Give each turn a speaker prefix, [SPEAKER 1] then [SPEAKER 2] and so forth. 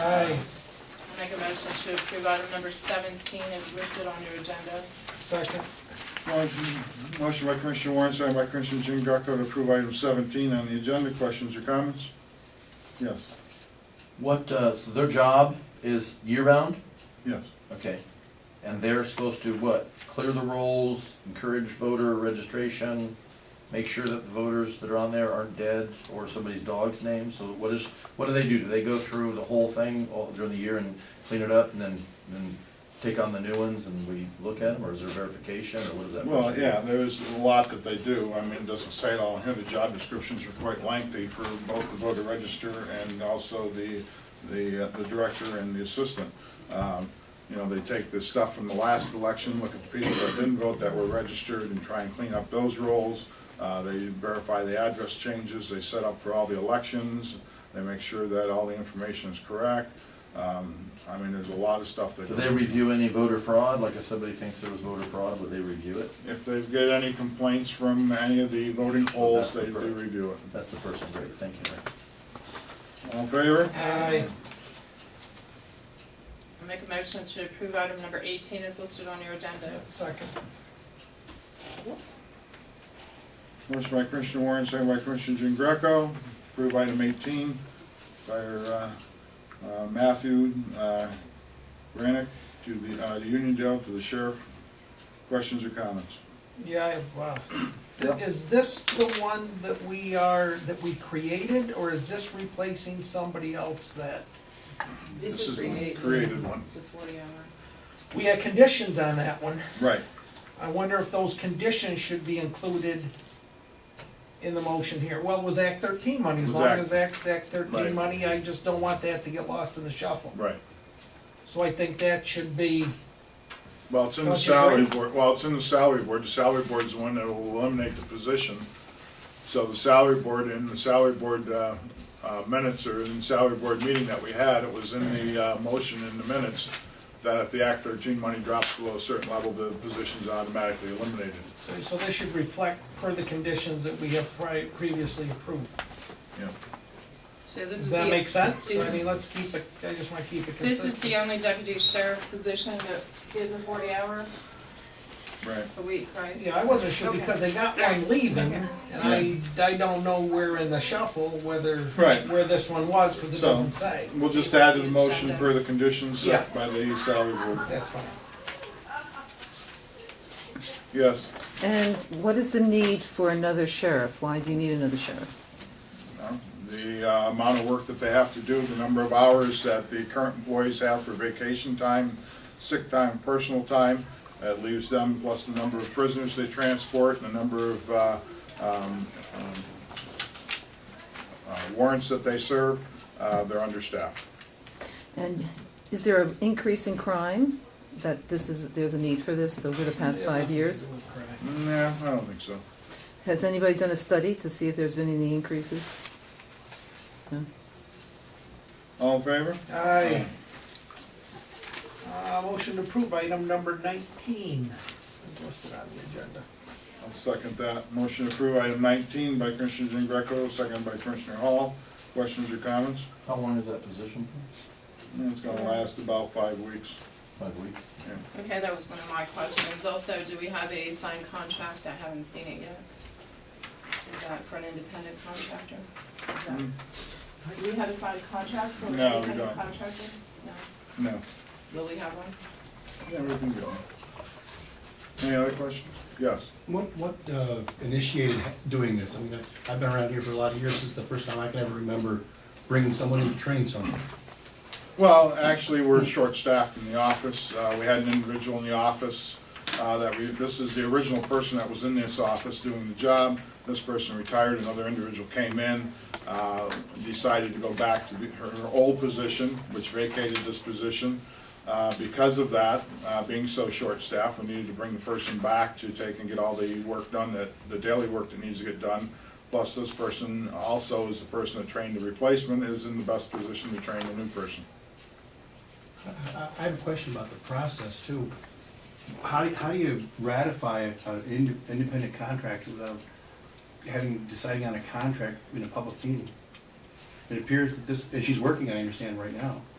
[SPEAKER 1] Aye.
[SPEAKER 2] I make a motion to approve item number seventeen is listed on your agenda.
[SPEAKER 1] Second.
[SPEAKER 3] Motion motion by Commissioner Warren, second by Commissioner Jean Greco to approve item seventeen on the agenda. Questions or comments? Yes,
[SPEAKER 4] What, uh, so their job is year-round?
[SPEAKER 3] yes.
[SPEAKER 4] Okay. And they're supposed to what? Clear the rolls, encourage voter registration, make sure that the voters that are on there aren't dead or somebody's dog's name? So what is, what do they do? Do they go through the whole thing all during the year and clean it up and then, then take on the new ones and we look at them? Or is there verification or what does that?
[SPEAKER 3] Well,
[SPEAKER 4] person do?
[SPEAKER 3] yeah, there's a lot that they do. I mean, it doesn't say it all in here. The job descriptions are quite lengthy for both the voter register and also the, the, uh, the director and the assistant. Um, You know, they take the stuff from the last election, look at the people that didn't vote that were registered and try and clean up those rolls. Uh, They verify the address changes they set up for all the elections. They make sure that all the information is correct. Um, I mean, there's a lot of stuff that.
[SPEAKER 4] Do they review any voter fraud? Like if somebody thinks there was voter fraud, would they review it?
[SPEAKER 3] If they get any complaints from any of the voting polls, they do review it.
[SPEAKER 4] That's the person, great, thank you. Rick.
[SPEAKER 3] All in favor?
[SPEAKER 1] Aye.
[SPEAKER 2] I make a motion to approve item number eighteen is listed on your agenda.
[SPEAKER 1] Second.
[SPEAKER 3] Motion by Commissioner Warren, second by Commissioner Jean Greco. Approve item eighteen by uh, uh, Matthew uh, Granick to the, uh, the Union Dale, to the sheriff. Questions or comments?
[SPEAKER 1] Yeah, I- wow.
[SPEAKER 3] Yep.
[SPEAKER 1] Is this the one that we are, that we created, or is this replacing somebody else that?
[SPEAKER 3] This is the created one.
[SPEAKER 2] It's a forty hour.
[SPEAKER 1] We had conditions on that one.
[SPEAKER 3] Right.
[SPEAKER 1] I wonder if those conditions should be included in the motion here. Well, it was Act thirteen money, as
[SPEAKER 3] Was
[SPEAKER 1] long
[SPEAKER 3] Act-
[SPEAKER 1] as Act, Act
[SPEAKER 3] Right.
[SPEAKER 1] thirteen money, I just don't want that to get lost in the shuffle.
[SPEAKER 3] Right.
[SPEAKER 1] So I think that should be,
[SPEAKER 3] Well, it's in the
[SPEAKER 1] Don't you
[SPEAKER 3] salary
[SPEAKER 1] agree?
[SPEAKER 3] board, well, it's in the salary board, the salary board's the one that will eliminate the position. So the salary board and the salary board uh, uh, minutes or in salary board meeting that we had, it was in the uh, motion in the minutes that if the Act thirteen money drops below a certain level, the position's automatically eliminated.
[SPEAKER 1] so- so this should reflect per the conditions that we have pri- previously approved.
[SPEAKER 3] Yeah.
[SPEAKER 2] So this is
[SPEAKER 1] Does
[SPEAKER 2] the.
[SPEAKER 1] that make sense? I
[SPEAKER 2] this-
[SPEAKER 1] mean, let's keep it, I just wanna keep it
[SPEAKER 2] This is
[SPEAKER 1] consistent.
[SPEAKER 2] the only deputy sheriff position that is a forty hour
[SPEAKER 3] Right.
[SPEAKER 2] a week, right?
[SPEAKER 1] Yeah, I wasn't sure
[SPEAKER 2] Okay.
[SPEAKER 1] because I got one leaving,
[SPEAKER 2] Okay.
[SPEAKER 1] and I, I don't know where in the shuffle, whether,
[SPEAKER 3] Right.
[SPEAKER 1] where this one was, cause it
[SPEAKER 3] So-
[SPEAKER 1] doesn't say.
[SPEAKER 3] We'll just add to the motion per the conditions
[SPEAKER 1] Yeah.
[SPEAKER 3] set by the salary board.
[SPEAKER 1] That's fine.
[SPEAKER 3] Yes,
[SPEAKER 5] And what is the need for another sheriff? Why do you need another sheriff?
[SPEAKER 3] Uh, the uh, amount of work that they have to do, the number of hours that the current employees have for vacation time, sick time, personal time, that leaves them, plus the number of prisoners they transport, and the number of uh, um, um, uh, warrants that they serve, uh, they're understaffed.
[SPEAKER 5] And is there an increase in crime that this is, there's a need for this over the past five years?
[SPEAKER 3] Nah, I don't think so.
[SPEAKER 5] Has anybody done a study to see if there's been any increases? No?
[SPEAKER 3] All in favor?
[SPEAKER 1] Aye. Uh, motion to approve item number nineteen is listed on the agenda.
[SPEAKER 3] I'll second that. Motion to approve item 19 by Commissioner Jean Greco, second by Commissioner Hall. Questions or comments?
[SPEAKER 4] How long is that position
[SPEAKER 3] It's gonna last about five weeks.
[SPEAKER 4] for? Five weeks?
[SPEAKER 3] Yeah.
[SPEAKER 2] Okay, that was one of my questions. Also, do we have a signed contract? I haven't seen it yet. Is that for an independent contractor? Is that-
[SPEAKER 1] Mm.
[SPEAKER 3] Hmm.
[SPEAKER 2] Do we have a signed contract for an
[SPEAKER 3] No, we
[SPEAKER 2] independent
[SPEAKER 3] don't.
[SPEAKER 2] contractor? No.
[SPEAKER 3] No.
[SPEAKER 2] Will we have one?
[SPEAKER 3] Yeah, we can go. Any other questions? Yes.
[SPEAKER 6] What, what uh, initiated doing this? I mean, I- I've been around here for a lot of years, this is the first time I can ever remember bringing someone in to train someone.
[SPEAKER 3] Well, actually, we're short-staffed in the office. Uh, We had an individual in the office uh, that we, this is the original person that was in this office doing the job. This person retired, another individual came in, uh, decided to go back to the- her her old position, which vacated this position. Uh, Because of that, uh, being so short-staffed, we needed to bring the person back to take and get all the work done, that the daily work that needs to get done. Plus, this person also is the person that trained the replacement, is in the best position to train the new person.
[SPEAKER 6] I- I I have a question about the process too. How, do- how do you ratify an ind- independent contractor without having, deciding on a contract in a public meeting? It appears that this, and she's working, I understand, right now.